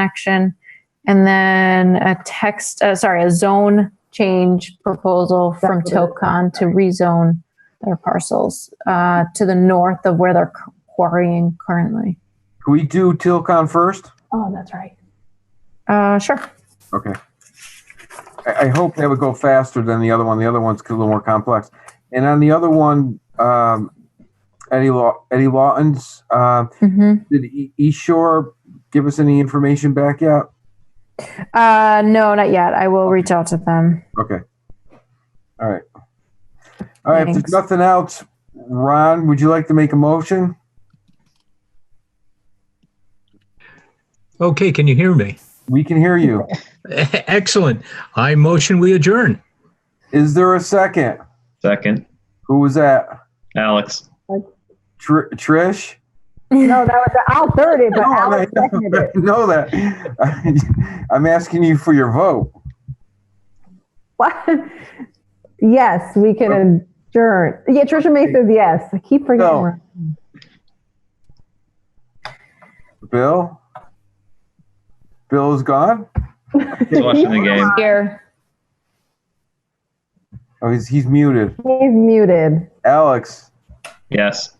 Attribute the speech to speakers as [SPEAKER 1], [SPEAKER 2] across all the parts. [SPEAKER 1] connection. And then a text, uh, sorry, a zone change proposal from
[SPEAKER 2] That's what it-
[SPEAKER 1] Tocon to rezone their parcels, uh, to the north of where they're quarrying currently.
[SPEAKER 3] Can we do Tilcon first?
[SPEAKER 2] Oh, that's right.
[SPEAKER 1] Uh, sure.
[SPEAKER 3] Okay. I, I hope that would go faster than the other one. The other one's a little more complex. And on the other one, um, Eddie Law, Eddie Lawton's, uh,
[SPEAKER 1] hmm
[SPEAKER 3] did E- East Shore give us any information back yet?
[SPEAKER 1] Uh, no, not yet. I will reach out to them.
[SPEAKER 3] Okay. All right. All right, if
[SPEAKER 1] Thanks.
[SPEAKER 3] there's nothing else, Ron, would you like to make a motion?
[SPEAKER 4] Okay, can you hear me?
[SPEAKER 3] We can hear you.
[SPEAKER 4] Excellent. I motion we adjourn.
[SPEAKER 3] Is there a second?
[SPEAKER 5] Second,
[SPEAKER 3] Who was that?
[SPEAKER 5] Alex.
[SPEAKER 3] Tr- Trish?
[SPEAKER 2] No, that was, I'll third it, but
[SPEAKER 3] No, I
[SPEAKER 2] Alex seconded
[SPEAKER 3] I
[SPEAKER 2] it.
[SPEAKER 3] know that. I'm asking you for your vote.
[SPEAKER 2] What? Yes, we can adjourn. Yeah, Trisha May says yes. I keep
[SPEAKER 3] No.
[SPEAKER 2] forgetting.
[SPEAKER 3] Bill? Bill is gone?
[SPEAKER 5] He's watching the game.
[SPEAKER 1] Here.
[SPEAKER 3] Oh, he's, he's muted.
[SPEAKER 2] He's muted.
[SPEAKER 3] Alex,
[SPEAKER 5] Yes.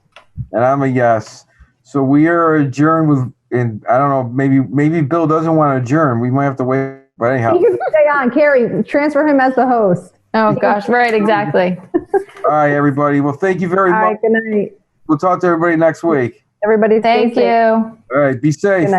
[SPEAKER 3] and I'm a yes. So we are adjourned with, and I don't know, maybe maybe Bill doesn't want to adjourn. We might have to wait. But anyhow,
[SPEAKER 2] You can stay on. Carrie, transfer him as the host.
[SPEAKER 1] Oh, gosh. Right. Exactly.
[SPEAKER 3] all right, everybody. Well, thank you very
[SPEAKER 2] All right,
[SPEAKER 3] much.
[SPEAKER 2] good night.
[SPEAKER 3] We'll talk to everybody next week.
[SPEAKER 2] Everybody stay
[SPEAKER 1] Thank
[SPEAKER 2] safe.
[SPEAKER 1] you.
[SPEAKER 3] All right, be safe.
[SPEAKER 2] Good night.